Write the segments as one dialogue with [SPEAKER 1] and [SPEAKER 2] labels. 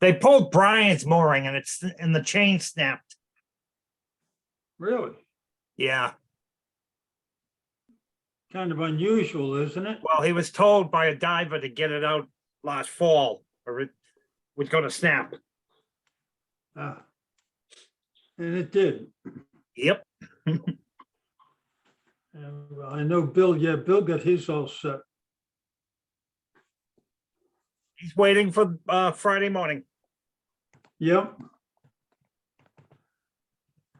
[SPEAKER 1] They pulled Brian's mooring and it's, and the chain snapped.
[SPEAKER 2] Really?
[SPEAKER 1] Yeah,
[SPEAKER 2] Kind of unusual, isn't it?
[SPEAKER 1] well, he was told by a diver to get it out last fall or it was gonna snap.
[SPEAKER 2] Ah. And it did.
[SPEAKER 1] Yep,
[SPEAKER 2] And I know Bill, yeah, Bill got his all set.
[SPEAKER 1] he's waiting for, uh, Friday morning.
[SPEAKER 2] Yep.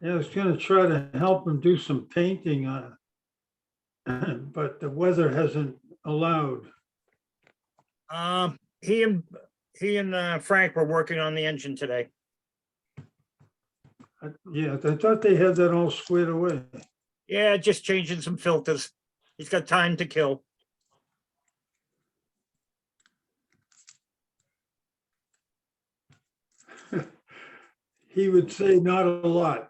[SPEAKER 2] Yeah, I was gonna try to help him do some painting on it. But the weather hasn't allowed.
[SPEAKER 1] Um, he and, he and uh, Frank were working on the engine today.
[SPEAKER 2] I- Yeah, I thought they had that all squared away.
[SPEAKER 1] Yeah, just changing some filters. He's got time to kill.
[SPEAKER 2] He would say not a lot.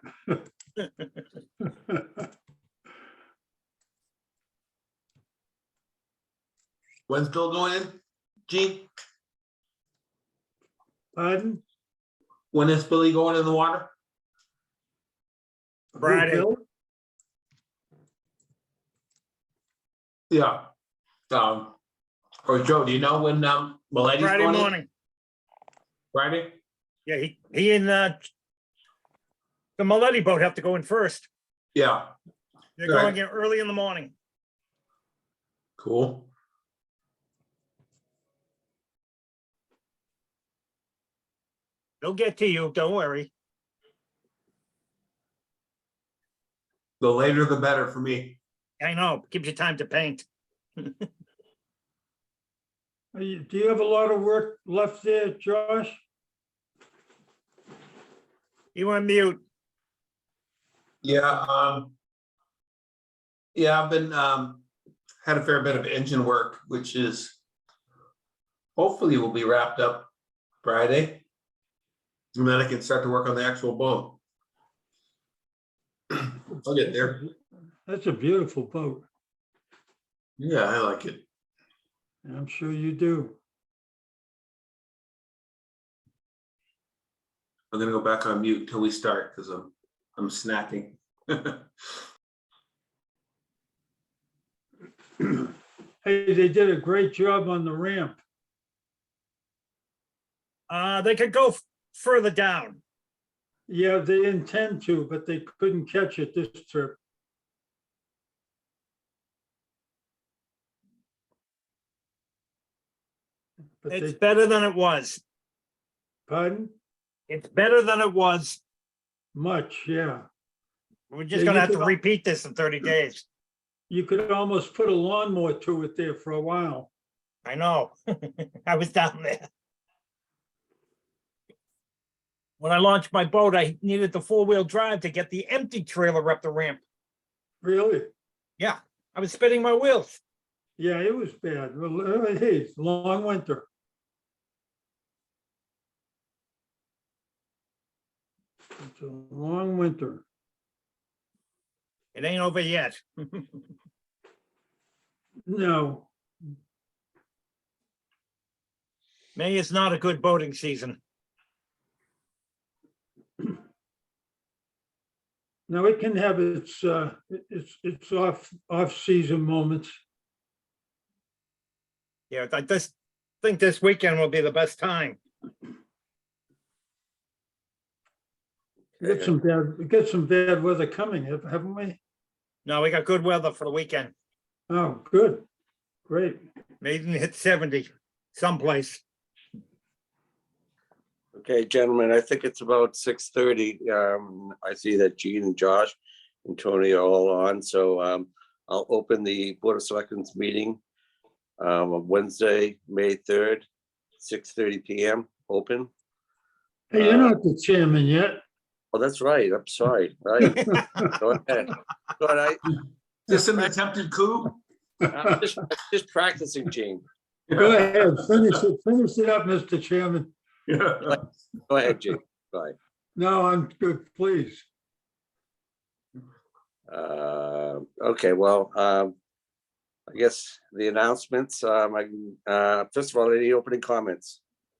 [SPEAKER 3] When's Bill going in? Gene,
[SPEAKER 2] Pardon?
[SPEAKER 3] when is Billy going in the water?
[SPEAKER 2] Who,
[SPEAKER 1] Friday.
[SPEAKER 2] Bill?
[SPEAKER 3] Yeah. Um, or Joe, do you know when, um, Miletti's
[SPEAKER 1] Friday
[SPEAKER 3] going in?
[SPEAKER 1] morning.
[SPEAKER 3] Friday?
[SPEAKER 1] Yeah, he, he and, uh, the Maletti boat have to go in first.
[SPEAKER 3] Yeah,
[SPEAKER 1] They're
[SPEAKER 3] Right.
[SPEAKER 1] going in early in the morning.
[SPEAKER 3] cool.
[SPEAKER 1] They'll get to you, don't worry.
[SPEAKER 3] The later the better for me.
[SPEAKER 1] I know, gives you time to paint.
[SPEAKER 2] Are you- Do you have a lot of work left there, Josh?
[SPEAKER 1] You want mute?
[SPEAKER 3] Yeah, um. Yeah, I've been, um, had a fair bit of engine work, which is hopefully will be wrapped up Friday. And then I can start to work on the actual boat. I'll get there.
[SPEAKER 2] That's a beautiful boat.
[SPEAKER 3] Yeah, I like it.
[SPEAKER 2] and I'm sure you do.
[SPEAKER 3] I'm gonna go back on mute until we start, because I'm, I'm snacking.
[SPEAKER 2] Hey, they did a great job on the ramp.
[SPEAKER 1] Uh, they could go f- further down.
[SPEAKER 2] Yeah, they intend to, but they couldn't catch it this trip. But
[SPEAKER 1] It's
[SPEAKER 2] they,
[SPEAKER 1] better than it was.
[SPEAKER 2] pardon?
[SPEAKER 1] It's better than it was.
[SPEAKER 2] Much, yeah.
[SPEAKER 1] We're
[SPEAKER 2] Yeah,
[SPEAKER 1] just
[SPEAKER 2] you
[SPEAKER 1] gonna have
[SPEAKER 2] could
[SPEAKER 1] to
[SPEAKER 2] al-
[SPEAKER 1] repeat this in thirty days.
[SPEAKER 2] You could almost put a lawnmower to it there for a while.
[SPEAKER 1] I know. I was down there. When I launched my boat, I needed the four-wheel drive to get the empty trailer up the ramp.
[SPEAKER 2] Really?
[SPEAKER 1] I was spinning my wheels.
[SPEAKER 2] Yeah, it was bad. Well, uh, hey, it's a long winter. It's a long winter.
[SPEAKER 1] It ain't over yet.
[SPEAKER 2] No,
[SPEAKER 1] May is not a good boating season.
[SPEAKER 2] no, it can have its, uh, it- it's, it's off, off-season moments.
[SPEAKER 1] Yeah, I just think this weekend will be the best time.
[SPEAKER 2] We Get some bad, we get some bad weather coming, hav- haven't we?
[SPEAKER 1] No, we got good weather for the weekend.
[SPEAKER 2] Oh, good, great.
[SPEAKER 1] Maybe even hit seventy someplace.
[SPEAKER 4] Okay, gentlemen, I think it's about six thirty. Um, I see that Gene and Josh and Tony are all on, so um, I'll open the Board of Selectmen's meeting. Um, on Wednesday, May third, six thirty PM, open.
[SPEAKER 2] Hey, you're not the chairman yet.
[SPEAKER 4] Oh, that's right, I'm sorry, right. Go ahead. But I,
[SPEAKER 3] Just an attempted coup?
[SPEAKER 4] I'm just, just practicing, Gene.
[SPEAKER 2] Go ahead, finish it, finish it up, Mr. Chairman.
[SPEAKER 3] Yeah.
[SPEAKER 4] Go ahead, Gene, bye.
[SPEAKER 2] No, I'm good, please.
[SPEAKER 4] Uh, okay, well, um, I guess the announcements, um, I, can- uh, first of all, any opening comments?